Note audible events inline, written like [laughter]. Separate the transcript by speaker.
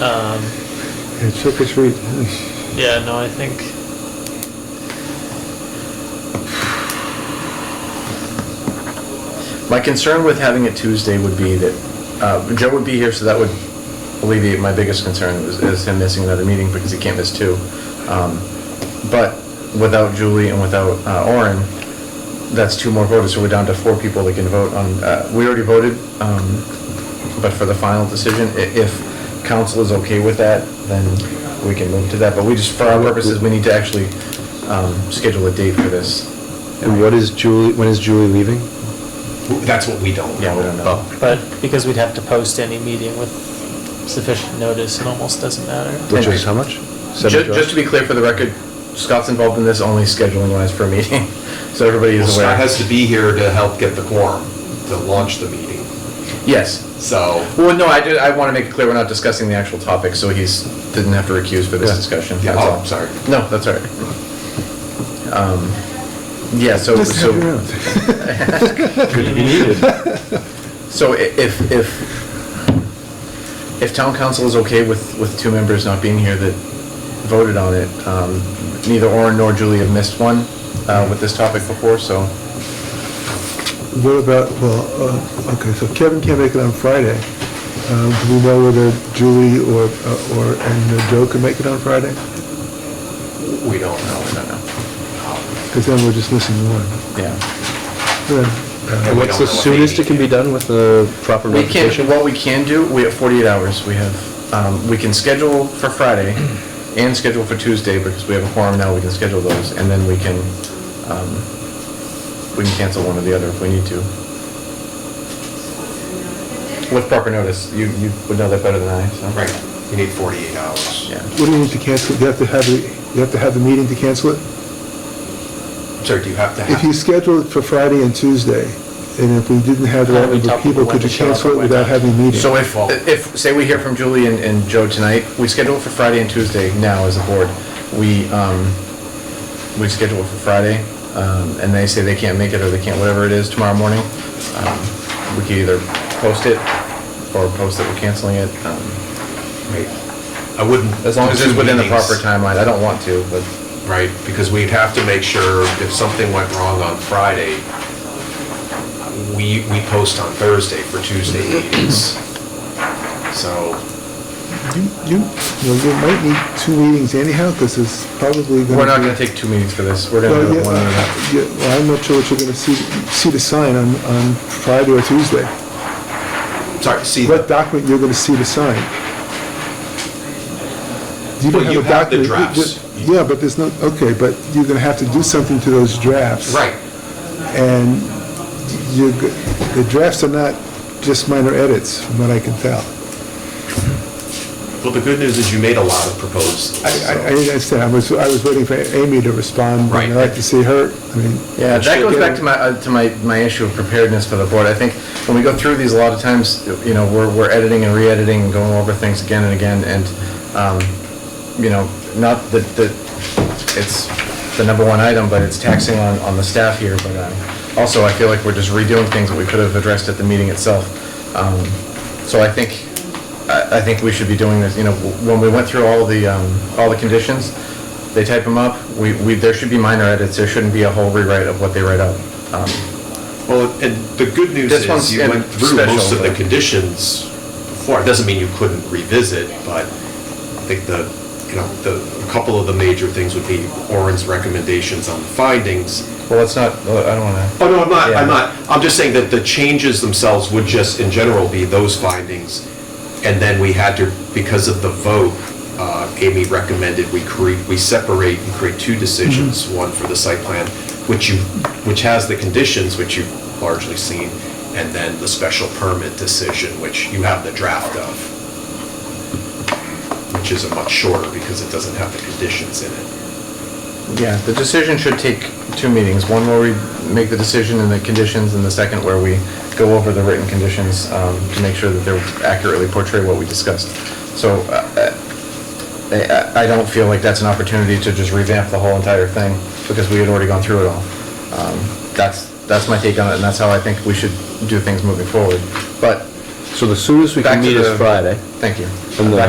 Speaker 1: Um,
Speaker 2: It took us, re-
Speaker 1: yeah, no, I think.
Speaker 3: My concern with having it Tuesday would be that, uh, Joe would be here, so that would alleviate my biggest concern, is- is him missing another meeting, because he can't miss two. Um, But without Julie and without uh, Orin, that's two more voters, so we're down to four people that can vote on, uh, we already voted, um, but for the final decision, i- if council is okay with that, then we can move to that, but we just, for our purposes, we need to actually um, schedule a date for this.
Speaker 2: and what is Julie, when is Julie leaving?
Speaker 4: That's what we don't know.
Speaker 3: Yeah, we don't know.
Speaker 1: But because we'd have to post any meeting with sufficient notice, it almost doesn't matter.
Speaker 2: Which is how much?
Speaker 3: Ju-
Speaker 2: Seven
Speaker 3: Just to be clear for the record, Scott's involved in this only scheduling wise for a meeting, [laughs] so everybody
Speaker 4: Well,
Speaker 3: is
Speaker 4: Scott
Speaker 3: aware.
Speaker 4: has to be here to help get the quorum, to launch the meeting,
Speaker 3: Yes.
Speaker 4: so.
Speaker 3: Well, no, I did, I want to make it clear, we're not discussing the actual topic, so he's, didn't have to recuse for this
Speaker 2: Yeah.
Speaker 3: discussion.
Speaker 4: Yeah,
Speaker 3: That's
Speaker 4: oh,
Speaker 3: all.
Speaker 4: sorry.
Speaker 3: No, that's all right. Um, Yeah, so,
Speaker 2: Just have your
Speaker 3: so,
Speaker 2: own.
Speaker 1: Good to be
Speaker 3: [laughs]
Speaker 1: needed.
Speaker 3: so i- if, if, if town council is okay with, with two members not being here that voted on it, um, neither Orin nor Julie have missed one uh, with this topic before, so.
Speaker 2: What about, well, uh, okay, so Kevin can't make it on Friday. Um, Do we know whether Julie or, uh, or, and uh, Joe can make it on Friday?
Speaker 4: We don't know.
Speaker 3: I don't know.
Speaker 2: Because then we're just missing one.
Speaker 3: Yeah.
Speaker 2: Then,
Speaker 4: And
Speaker 2: uh,
Speaker 4: we don't
Speaker 5: What's the
Speaker 4: know what
Speaker 5: soonest
Speaker 4: they
Speaker 5: it can be
Speaker 4: need.
Speaker 5: done with the proper
Speaker 3: We can,
Speaker 5: notification?
Speaker 3: what we can do, we have 48 hours, we have, um, we can schedule for Friday and schedule for Tuesday, because we have a quorum now, we can schedule those, and then we can, um, we can cancel one or the other if we need to. With proper notice, you, you would know that better than I, so.
Speaker 4: Right, you need 48 hours.
Speaker 3: Yeah.
Speaker 2: what do you need to cancel? You have to have, the- you have to have the meeting to cancel it?
Speaker 4: So do you have to
Speaker 2: If you
Speaker 4: have,
Speaker 2: schedule it for Friday and Tuesday, and if we didn't have
Speaker 1: Well,
Speaker 2: that
Speaker 1: we
Speaker 2: number
Speaker 1: tell
Speaker 2: of people,
Speaker 1: people when
Speaker 2: could
Speaker 1: to
Speaker 2: you
Speaker 1: show up
Speaker 2: cancel it
Speaker 1: and when
Speaker 2: without
Speaker 1: not.
Speaker 2: having a meeting?
Speaker 3: So if, if, say we hear from Julie and, and Joe tonight, we schedule it for Friday and Tuesday now as a board. We, um, we schedule it for Friday, um, and they say they can't make it or they can't, whatever it is tomorrow morning. um, We could either post it or post that we're canceling it, um,
Speaker 4: Right. I wouldn't.
Speaker 3: as long as
Speaker 4: do
Speaker 3: it's
Speaker 4: two
Speaker 3: within the
Speaker 4: meetings,
Speaker 3: proper timeline. I don't want to, but,
Speaker 4: Right, because we'd have to make sure if something went wrong on Friday, we, we post on Thursday for Tuesday meetings. So,
Speaker 2: You, you, you know, you might need two meetings anyhow, because it's probably gonna
Speaker 3: we're not
Speaker 2: be-
Speaker 3: gonna take two meetings for this. We're gonna
Speaker 2: Well,
Speaker 3: do
Speaker 2: yeah, uh,
Speaker 3: it one at a
Speaker 2: yeah, well, I'm not sure what you're gonna see, see the sign on, on Friday or Tuesday.
Speaker 4: sorry, see.
Speaker 2: What document you're gonna see the sign? You don't
Speaker 4: Well, you
Speaker 2: a
Speaker 4: have the
Speaker 2: document-
Speaker 4: drafts.
Speaker 2: Yeah, but there's no, okay, but you're gonna have to do something to those drafts.
Speaker 4: Right,
Speaker 2: And you, the drafts are not just minor edits, from what I can tell.
Speaker 4: well, the good news is you made a lot of proposals.
Speaker 2: I, I I
Speaker 4: so-
Speaker 2: understand, I was, I was waiting for Amy to respond,
Speaker 4: Right.
Speaker 2: and I'd like to see her, I mean.
Speaker 3: Yeah,
Speaker 2: she-
Speaker 3: that goes back to my, uh, to my, my issue of preparedness for the board. I think when we go through these, a lot of times, you know, we're, we're editing and re-editing and going over things again and again, and, um, you know, not that, that it's the number one item, but it's taxing on, on the staff here, but, um, also I feel like we're just redoing things that we could have addressed at the meeting itself. Um, so I think, I, I think we should be doing this, you know, when we went through all the, um, all the conditions, they type them up, we, we, there should be minor edits, there shouldn't be a whole rewrite of what they write up. Um,
Speaker 4: Well, and the good news
Speaker 3: This one's
Speaker 4: is you went through
Speaker 3: special,
Speaker 4: most of the
Speaker 3: but-
Speaker 4: conditions before. It doesn't mean you couldn't revisit, but I think the, you know, the, a couple of the major things would be Orin's recommendations on the findings.
Speaker 3: Well, it's not, I don't wanna.
Speaker 4: Oh, no, I'm not,
Speaker 3: Yeah.
Speaker 4: I'm not. I'm just saying that the changes themselves would just, in general, be those findings. And then we had to, because of the vote, uh, Amy recommended we create, we separate and create two decisions, one for the site plan, which you, which has the conditions, which you've largely seen, and then the special permit decision, which you have the draft of, which is a much shorter because it doesn't have the conditions in it.
Speaker 3: Yeah, the decision should take two meetings, one where we make the decision and the conditions, and the second where we go over the written conditions um, to make sure that they accurately portray what we discussed. So uh, uh, I- I I don't feel like that's an opportunity to just revamp the whole entire thing, because we had already gone through it all. Um, That's, that's my take on it, and that's how I think we should do things moving forward. But
Speaker 5: So the soonest we
Speaker 3: back
Speaker 5: can
Speaker 3: to
Speaker 5: meet
Speaker 3: the...
Speaker 5: is Friday.
Speaker 3: Thank you.
Speaker 5: And the-
Speaker 3: Back